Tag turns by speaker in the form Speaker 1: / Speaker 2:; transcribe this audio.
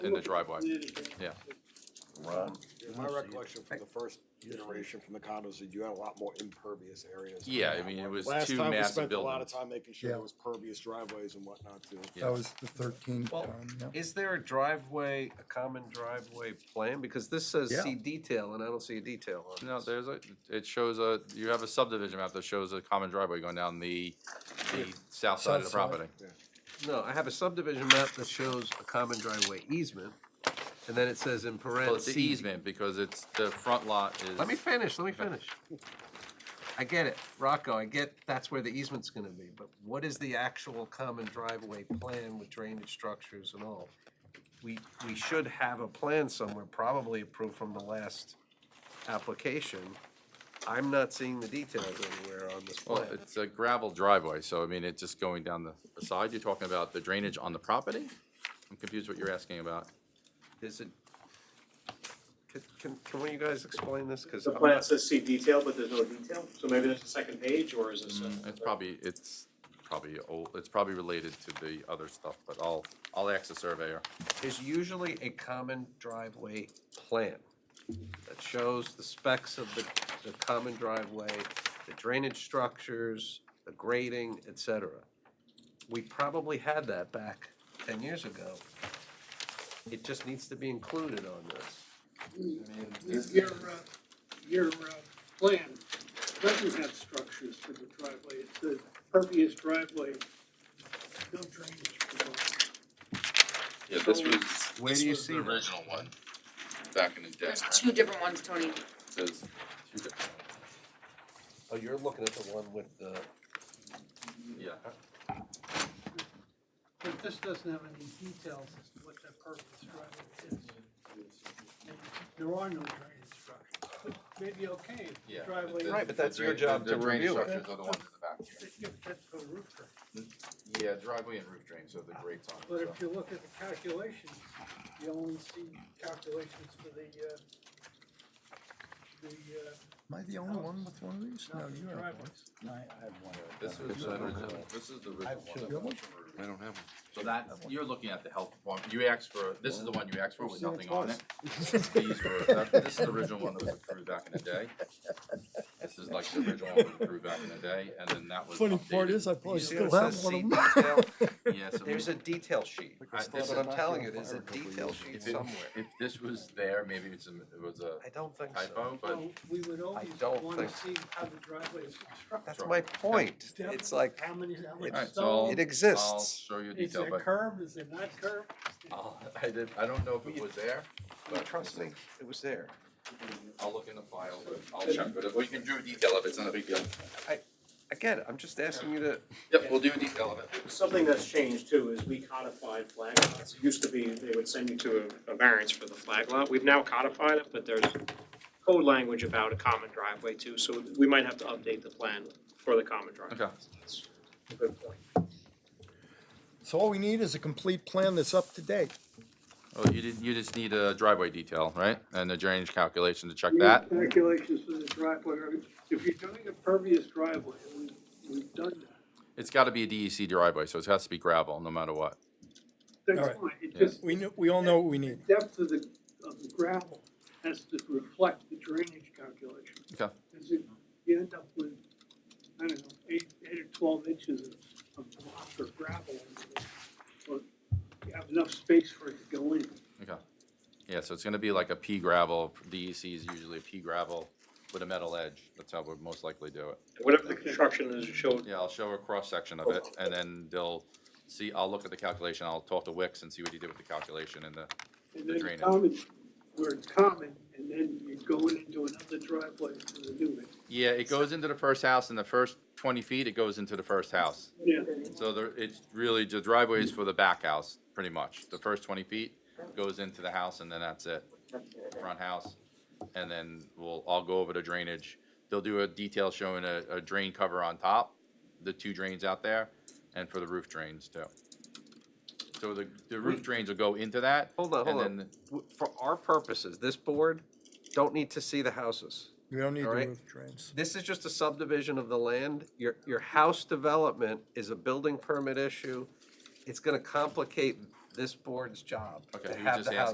Speaker 1: in the driveway. Yeah.
Speaker 2: Ron?
Speaker 3: My recollection from the first iteration from the condos, that you had a lot more impervious areas. than
Speaker 1: Yeah, I
Speaker 3: that
Speaker 1: mean, it
Speaker 3: one.
Speaker 1: was
Speaker 3: Last
Speaker 1: two
Speaker 3: time we
Speaker 1: massive
Speaker 3: spent A lot of
Speaker 1: buildings.
Speaker 3: time making sure
Speaker 4: Yeah.
Speaker 3: there was pervious driveways and whatnot too.
Speaker 1: Yeah.
Speaker 4: That was the thirteen
Speaker 5: Well,
Speaker 4: time, yeah.
Speaker 5: Is there a driveway, a common driveway plan? Because this says
Speaker 4: Yeah.
Speaker 5: see detail, and I don't see a detail on
Speaker 1: No,
Speaker 5: this.
Speaker 1: there's a, it shows a, you have a subdivision map that shows a common driveway going down the, the south side of the
Speaker 4: South side.
Speaker 1: property.
Speaker 5: No, I have a subdivision map that shows a common driveway easement, and then it says
Speaker 1: Well,
Speaker 5: in parentheses.
Speaker 1: Oh, it's the easement because it's, the front lot is.
Speaker 5: Let me finish, let me finish. I get it, Rocco, I get that's where the easement's gonna be, but what is the actual common driveway plan with drainage structures and all? We, we should have a plan somewhere, probably approved from the last application. I'm not seeing the details anywhere on this
Speaker 1: Well,
Speaker 5: plan.
Speaker 1: it's a gravel driveway, so I mean, it's just going down the side. You're talking about the drainage on the property? I'm confused what you're asking about.
Speaker 5: Is it? Can, can, can one of you guys explain this? Cause
Speaker 6: The
Speaker 5: I'm
Speaker 6: plan
Speaker 5: not,
Speaker 6: says see detail, but there's no detail, so maybe there's a second page, or is this?
Speaker 1: Mm, It's probably, it's probably old, it's probably related to the other stuff, but I'll, I'll ask the surveyor.
Speaker 5: there's usually a common driveway plan that shows the specs of the, the common driveway, the drainage structures, the grading, et cetera. We probably had that back ten years ago. It just needs to be included on this.
Speaker 7: Your, your, uh, your, uh, plan doesn't have structures for the driveway, it says pervious driveway, no drainage. below.
Speaker 8: Yeah, this
Speaker 7: So-
Speaker 8: was.
Speaker 5: Where
Speaker 8: this
Speaker 5: do you
Speaker 8: was
Speaker 5: see
Speaker 8: the
Speaker 5: that?
Speaker 8: Original one, back in the day.
Speaker 9: There's two different ones, Tony.
Speaker 8: It says-
Speaker 5: Oh, you're looking at the one with the,
Speaker 1: Yeah.
Speaker 7: But this doesn't have any details as to what that pervious driveway is. And There are no drainage structures, but maybe okay, if the
Speaker 8: Yeah,
Speaker 7: driveway.
Speaker 8: the-
Speaker 5: Right, but
Speaker 8: the
Speaker 5: that's your
Speaker 8: drain-
Speaker 5: job
Speaker 8: the
Speaker 5: to
Speaker 8: drainage
Speaker 5: review it.
Speaker 8: Structures are the ones in the back here.
Speaker 7: If you- That's a roof drain,
Speaker 8: Yeah, driveway and roof drains are the great time.
Speaker 7: but if you look at the calculations, you only see calculations for the, uh, the, uh,
Speaker 4: Am I the only one with one of these? No, you are.
Speaker 7: Driveway.
Speaker 1: This is the original, this is the original
Speaker 4: Do
Speaker 1: one.
Speaker 4: you have one?
Speaker 2: I don't have one.
Speaker 1: So that, you're looking at the health one, you asked for, this is the one you asked for with
Speaker 3: Seen
Speaker 1: nothing
Speaker 3: it
Speaker 1: on it. These were, that- this is the original one that was approved back in the day. This is like the original one that was approved back in the day, and then that was
Speaker 4: Funny part
Speaker 1: updated.
Speaker 4: is I
Speaker 5: you
Speaker 4: probably
Speaker 5: see what
Speaker 4: Oh, still
Speaker 5: it
Speaker 4: have
Speaker 5: says,
Speaker 4: one
Speaker 5: see
Speaker 4: of them.
Speaker 5: detail?
Speaker 1: Yeah, so
Speaker 5: There's a detail sheet.
Speaker 1: I-
Speaker 5: That's
Speaker 1: this
Speaker 5: what I'm
Speaker 1: is-
Speaker 5: telling you, there's a detail sheet
Speaker 1: if it-
Speaker 5: somewhere.
Speaker 1: If this was there, maybe it's, a- it was a
Speaker 5: I don't think so.
Speaker 1: typo, but
Speaker 7: Well, we would always
Speaker 5: don't
Speaker 7: wanna see
Speaker 5: think-
Speaker 7: how the driveway is constructed.
Speaker 5: That's my point. It's like,
Speaker 7: How many, how much
Speaker 1: Alright, so
Speaker 7: stone,
Speaker 5: it
Speaker 1: I'll
Speaker 5: exists.
Speaker 1: show you a
Speaker 7: is
Speaker 1: detail,
Speaker 7: it
Speaker 1: but
Speaker 7: curved, is it not curved?
Speaker 1: I'll, I did, I don't know if it was there, but
Speaker 5: Trust me, it was there.
Speaker 1: I'll look in the file, but I'll check, but if we can do a detail of it, it's not a big deal.
Speaker 5: Again, I'm just asking you to,
Speaker 1: Yep, we'll do a detail of it.
Speaker 6: Something that's changed too is we codified flag lots. It used to be they would send you to a, a variance for the flag lot. We've now codified it, but there's code language about a common driveway too, so we might have to update the plan for the common driveway.
Speaker 1: Okay.
Speaker 6: That's a good point.
Speaker 4: So all we need is a complete plan that's up to date.
Speaker 1: Well, you did, you just need a driveway detail, right? And the drainage calculation to check
Speaker 7: You
Speaker 1: that.
Speaker 7: need Calculations for the driveway, or if you're doing a pervious driveway, and we, we've done that,
Speaker 1: It's gotta be a DEC driveway, so it has to be gravel, no matter what.
Speaker 7: that's
Speaker 4: Alright.
Speaker 7: fine, it
Speaker 1: Yeah.
Speaker 7: just,
Speaker 4: We knew, we all know what we need.
Speaker 7: depth of the, of the gravel has to reflect the drainage calculation.
Speaker 1: Okay.
Speaker 7: Cause if you end up with, I don't know, eight, eight or twelve inches of, of block or gravel, or you have enough space for it to go in.
Speaker 1: Okay. Yeah, so it's gonna be like a pea gravel, DEC is usually a pea gravel with a metal edge. That's how we'll most likely do it.
Speaker 6: Whatever the construction is, it showed
Speaker 1: Yeah, I'll show a cross-section of it, and then they'll see, I'll look at the calculation, I'll talk to Wicks and see what he did with the calculation and the,
Speaker 7: And
Speaker 1: The
Speaker 7: then
Speaker 1: drainage.
Speaker 7: common, where it's common, and then you're going into another driveway for the new one.
Speaker 1: yeah, it goes into the first house, and the first twenty feet, it goes into the first house.
Speaker 7: Yeah,
Speaker 1: So there, it's really, the driveway is for the back house, pretty much. The first twenty feet goes into the house and then that's it. Front house, and then we'll, I'll go over the drainage. They'll do a detail showing a, a drain cover on top, the two drains out there, and for the roof drains too. So the, the roof drains will go into that.
Speaker 5: Hmm. hold on,
Speaker 1: and
Speaker 5: hold on.
Speaker 1: then-
Speaker 5: W- For our purposes, this board don't need to see the houses.
Speaker 4: We don't need the
Speaker 5: All right.
Speaker 4: roof drains.
Speaker 5: This is just a subdivision of the land. Your, your house development is a building permit issue. It's gonna complicate this board's job
Speaker 1: Okay,
Speaker 5: to
Speaker 1: he was
Speaker 5: have
Speaker 1: just
Speaker 5: the house